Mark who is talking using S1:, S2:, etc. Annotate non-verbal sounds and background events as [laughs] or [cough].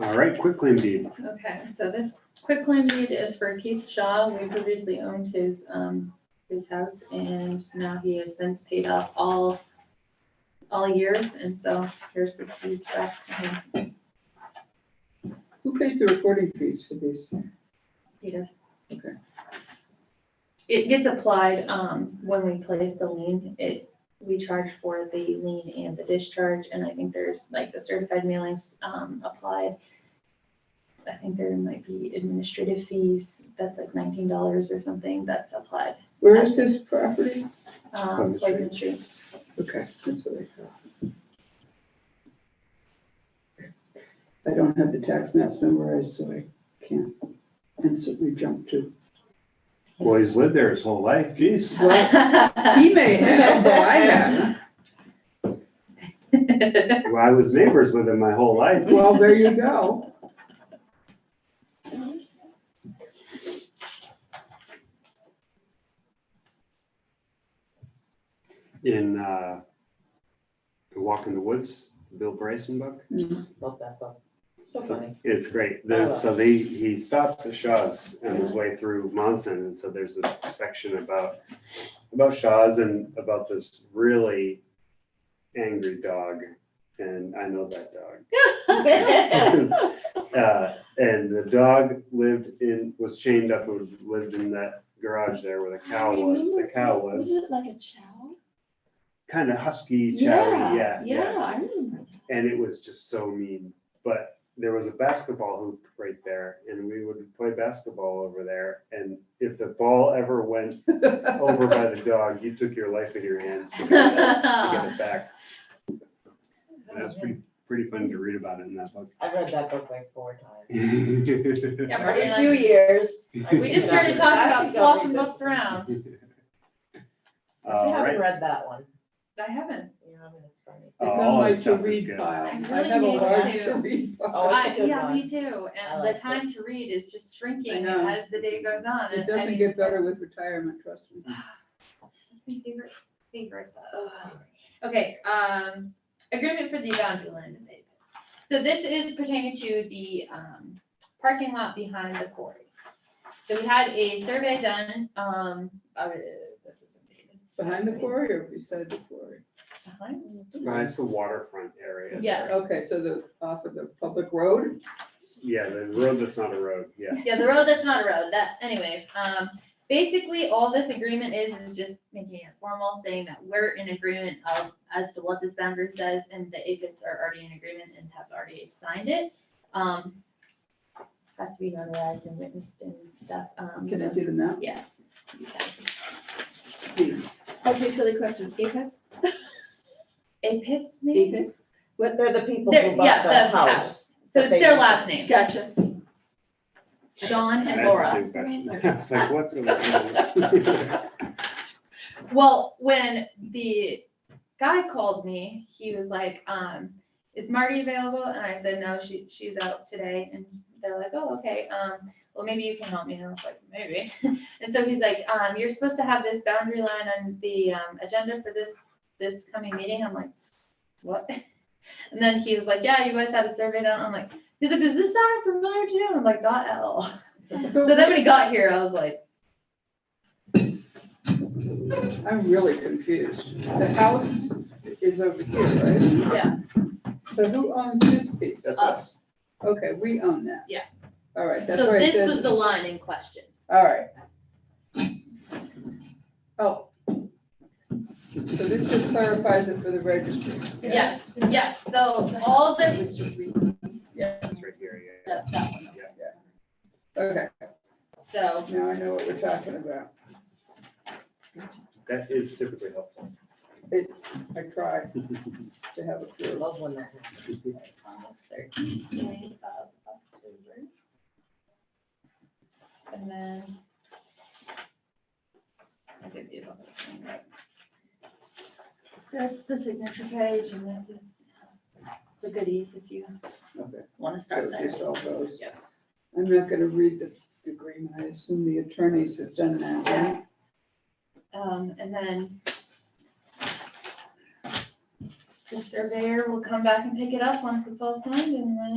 S1: All right, quitclaim deed.
S2: Okay, so this quitclaim deed is for Keith Shaw. We previously owned his, um, his house and now he has since paid off all, all years. And so here's this deed back to him.
S3: Who pays the recording fees for these?
S2: He does.
S3: Okay.
S2: It gets applied, um, when we place the lien, it, we charge for the lien and the discharge, and I think there's, like, the certified mailings, um, applied. I think there might be administrative fees, that's like nineteen dollars or something, that's applied,
S3: Where is this property?
S2: um,
S1: Understood.
S2: Poison Street.
S3: Okay, that's what I thought. I don't have the tax maps memorized, so I can't instantly jump to.
S1: Well, he's lived there his whole life,
S4: [laughs]
S1: geez.
S2: [laughs]
S3: He may have, but Oh, I haven't.
S1: Well, I was neighbors with him my whole life.
S3: Well, there you go.
S1: In, uh, The Walk in the Woods, Bill Bryson book.
S4: Love that book. [laughs] So funny.
S1: It's great. There's, so they, he stops at Shaw's on his way through Monson, and so there's a section about, about Shaw's and about this really angry dog, and I know that dog. [laughs] Uh, and the dog lived in, was chained up, who lived in that garage there where the cow was, the cow was,
S5: it like a chow?
S1: kind of husky, chowy, yeah, yeah.
S5: Yeah, I remember.
S1: and it was just so mean. But there was a basketball hoop right there, and we would play basketball over there. And if the ball ever [laughs] went over by the dog, you took your life in your hands [laughs] to get it, to get it back. And that's pretty pretty fun to read about it in that book. [laughs]
S4: I've read that book like four times.
S2: Yeah, Marty
S4: Every
S2: and
S4: few
S2: I-
S4: years.
S2: We just started talking about swapping books around.
S4: I
S1: [laughs] All right.
S4: haven't read that one.
S2: I haven't.
S4: You know, I mean, it's funny.
S1: Oh,
S3: It's
S1: all that
S3: on my
S1: stuff is
S3: to-read
S1: good.
S3: pile.
S2: I
S3: I
S2: really
S3: have a
S2: need
S3: large
S2: to.
S3: to-read
S4: Oh,
S3: pile.
S4: it's a
S2: I,
S4: good
S2: yeah,
S4: one.
S2: me too.
S4: I
S2: And the
S4: like it.
S2: time to read is just shrinking
S3: I know.
S2: as the day goes on.
S3: It
S2: and I
S3: doesn't
S2: mean,
S3: get better with retirement, trust me.
S2: That's my favorite, favorite. Ugh. Okay, um, agreement for the boundary line abatement. So this is pertaining to the, um, parking lot behind the quarry. So we had a survey done, um, uh, this is dated
S3: Behind the quarry or beside the quarry?
S2: behind.
S1: Uh, It's the waterfront area.
S2: Yeah.
S3: Okay, so the, off of the public road?
S1: Yeah, the road that's not a road, yeah.
S2: Yeah, the road that's not a road, that, anyways, um, basically, all this agreement is, is just making it formal, saying that we're in agreement of, as to what this boundary says, and the aphids are already in agreement and have already signed it. Um, has to be notarized and witnessed and stuff, um,
S3: Can I
S2: so-
S3: see the map?
S2: yes. you can.
S3: Please.
S5: Okay, so the question, apex?
S2: Aphids, maybe?
S4: But They're the people
S2: They're-
S4: who
S2: yeah,
S4: bought the
S2: the
S4: house.
S2: So
S4: that
S2: it's
S4: they
S2: their
S4: bought.
S2: last name,
S5: Gotcha.
S2: Sean and
S1: That's
S2: Laura.
S1: the same question. [laughs] It's like, what's going on?
S2: Well, when the guy called me, he was like, um, is Marty available? And I said, no, she, she's out today. And they're like, oh, okay, um, well, maybe you can help me. And I was like, maybe. [laughs] And so he's like, um, you're supposed to have this boundary line on the, um, agenda for this, this coming meeting. I'm like, what? [laughs] And then he was like, yeah, you guys had a survey done. I'm like, he's like, does this sound familiar to you? And I'm like, not at all. [laughs] So then when he got here, I was like,
S3: I'm really confused. The house is over here, right?
S2: yeah,
S3: So who owns this piece?
S1: That's us.
S3: Okay, we own that.
S2: Yeah.
S3: All right, that's
S2: so
S3: where it
S2: this was
S3: says,
S2: the line in question.
S3: all right. Oh. So this just clarifies it for the registry.
S2: Yes, yes, so all this,
S3: Yeah,
S1: It's right here, yeah.
S2: that, that one,
S3: okay,
S2: so,
S3: now I know what we're talking about.
S1: That is typically helpful.
S3: I tried to have a
S4: I
S3: clue.
S4: Love when that happens.
S2: almost thirteen day of October. And then. I did the other thing, right? That's the signature page, and this is the goodies if you
S3: Okay,
S2: wanna
S3: I
S2: start
S3: was
S2: there.
S3: just all those.
S2: Yep.
S3: I'm not gonna read the the agreement, I assume the attorneys have done that, right?
S2: Um, and then the surveyor will come back and pick it up once it's all signed, and then